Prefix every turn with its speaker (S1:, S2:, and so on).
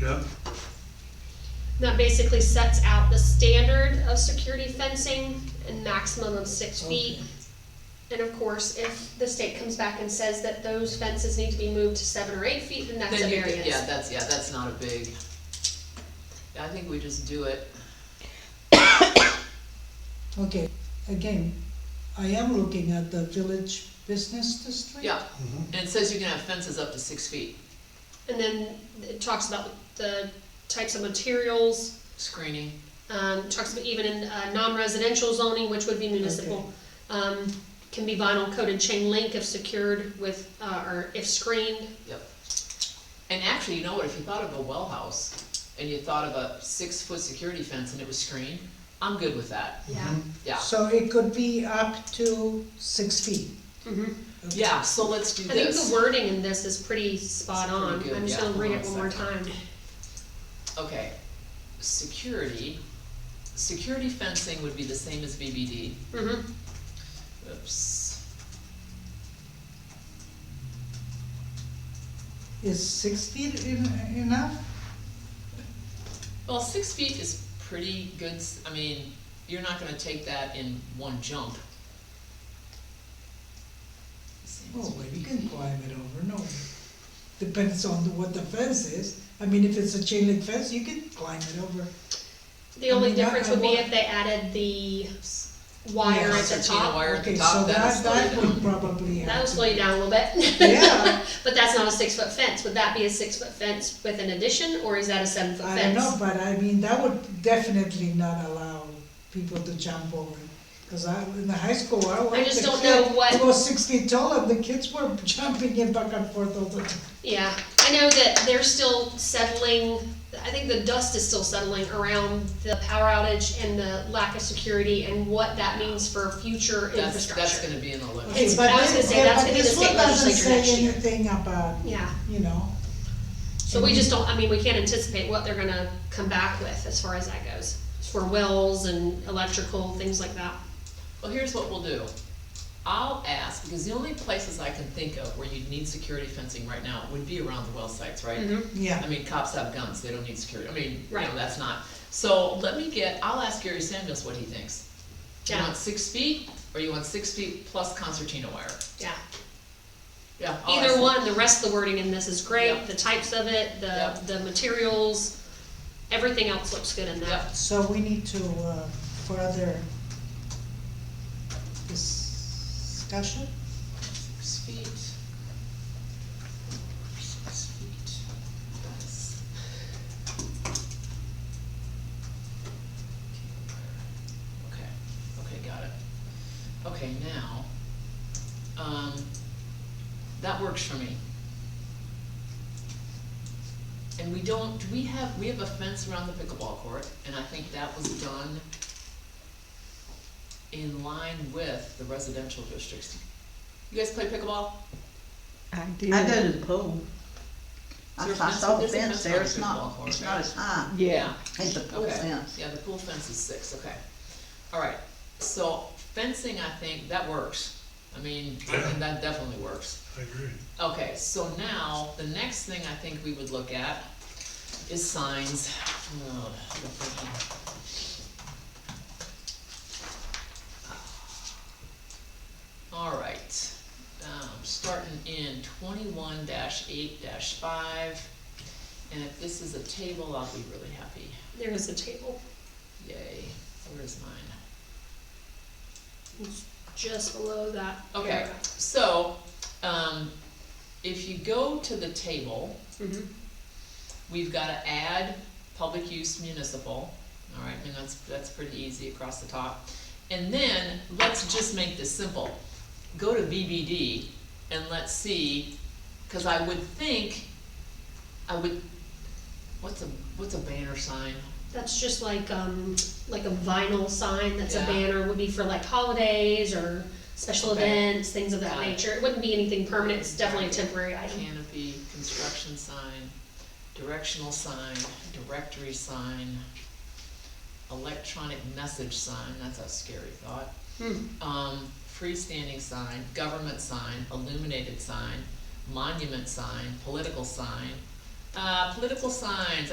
S1: yeah,
S2: That basically sets out the standard of security fencing and maximum of six feet. And of course, if the state comes back and says that those fences need to be moved to seven or eight feet, then that's a
S3: Then you could, yeah,
S2: variance.
S3: that's, yeah, that's not a big, I think we just do it.
S4: Okay, again, I am looking at the village business
S2: Oh,
S4: district.
S3: Yeah, and it says you can have fences up to six feet,
S2: And then it talks about the types of materials,
S3: screening.
S2: um, talks about even in, uh, non-residential zoning, which would be municipal. Um, can be vinyl coated chain link if secured with, uh, or if screened.
S3: Yep. And actually, you know what, if you thought of a well house, and you thought of a six-foot security fence and it was screened, I'm good with that,
S2: Yeah.
S3: yeah.
S4: So it could be up to six feet.
S3: Mm-hmm.
S2: hmm
S4: Okay.
S3: Yeah, so let's do
S2: I think the
S3: this.
S2: wording in this is pretty spot
S3: It's pretty
S2: on.
S3: good,
S2: I'm just
S3: yeah.
S2: gonna read it one
S3: Hold
S2: more
S3: on a second.
S2: time.
S3: Okay, security, security fencing would be the same as BBD.
S2: hmm
S3: Oops,
S4: Is six feet en- enough?
S3: well, six feet is pretty good, s- I mean, you're not gonna take that in one jump. Same as
S4: Oh, well, you
S3: BBD.
S4: can climb it over, no. Depends on the- what the fence is. I mean, if it's a chain link fence, you can climb it over.
S2: The only
S4: I mean, I-
S2: difference
S4: I
S2: would be
S4: want-
S2: if they added the wire at the
S3: Concertina
S2: top.
S3: wire at the
S4: Okay,
S3: top,
S4: so
S3: that'll
S4: that,
S3: slow
S4: that
S3: you
S4: would
S3: down.
S4: probably
S2: That would
S4: have
S2: slow
S4: to.
S2: you down a little bit.
S4: Yeah.
S2: But that's not a six foot fence. Would that be a six foot fence with an addition or is that a seven foot
S4: I don't
S2: fence?
S4: know, but I mean, that would definitely not allow people to jump over it. Cause I, in the high school, I watched.
S2: just
S4: the
S2: don't
S4: kid
S2: know what-
S4: Go six feet tall and the kids were jumping in back and forth all the time.
S2: Yeah, I know that they're still settling, I think the dust is still settling around the power outage and the lack of security and what that means for future
S3: That's, that's
S2: infrastructure.
S3: gonna be in the list.
S2: It's- I was gonna say, that's gonna be the state legislature
S4: But this one doesn't
S2: next
S4: say
S2: year.
S4: anything about,
S2: Yeah,
S4: you know.
S2: so
S3: Mhm.
S2: we just don't, I mean, we can't anticipate what they're gonna come back with as far as that goes, for wells and electrical, things like that.
S3: Well, here's what we'll do. I'll ask, because the only places I can think of where you'd need security fencing right now would be around the well sites, right?
S2: Mhm.
S4: Yeah,
S3: I mean, cops have guns, they don't need security, I mean, you know,
S2: Right.
S3: that's not. So let me get, I'll ask Gary Samuels what he thinks. You
S2: Yeah.
S3: want six feet, or you want six feet plus concertina wire?
S2: Yeah,
S3: Yeah. I'll ask
S2: either
S3: him.
S2: one, the rest of the wording in this is
S3: Oh, Yeah.
S2: great, the types of it, the,
S3: Yeah.
S2: the materials, everything else looks good in
S3: Yeah.
S2: that.
S4: so we need to, uh, further discussion?
S3: Six feet. Six feet. That's- Okay, okay, got it. Okay, now, um, that works for me. And we don't, do we have, we have a fence around the pickleball court, and I think that was done in line with the residential districts. You guys play pickleball?
S5: I
S6: I
S5: did.
S6: go to the pool. I
S3: There's
S6: I
S3: fence-
S6: saw the
S3: there's a
S6: fence
S3: fence on
S6: there,
S3: the
S6: it's
S3: big
S6: not,
S3: wall court,
S6: it's
S3: right?
S6: not as high,
S5: Yeah,
S6: it's the pool
S3: Okay,
S6: fence.
S3: yeah, the pool fence is six, okay. All right, so fencing, I think, that works. I mean, I think that definitely works.
S1: I agree.
S3: Okay, so now, the next thing I think we would look at is signs. Ugh, the freaking- All right, um, starting in twenty-one eight five, and if this is a table, I'll be really happy.
S2: There is a table,
S3: Yay, where is mine?
S2: just below that
S3: Okay,
S2: paragraph.
S3: so, um, if you go to the table,
S2: Mhm.
S3: we've gotta add public use municipal, all right, and that's, that's pretty easy across the top. And then, let's just make this simple, go to BBD and let's see, cause I would think, I would, what's a, what's a banner sign?
S2: That's just like, um, like a vinyl sign, that's a
S3: Yeah.
S2: banner, would be for like holidays or special
S3: Okay.
S2: events, things of that
S3: Got it.
S2: nature. It wouldn't be anything permanent, it's definitely a temporary item.
S3: canopy, construction sign, directional sign, directory sign, electronic message sign, that's a scary thought.
S2: Hmm.
S3: Um, freestanding sign, government sign, illuminated sign, monument sign, political sign. Uh, political signs,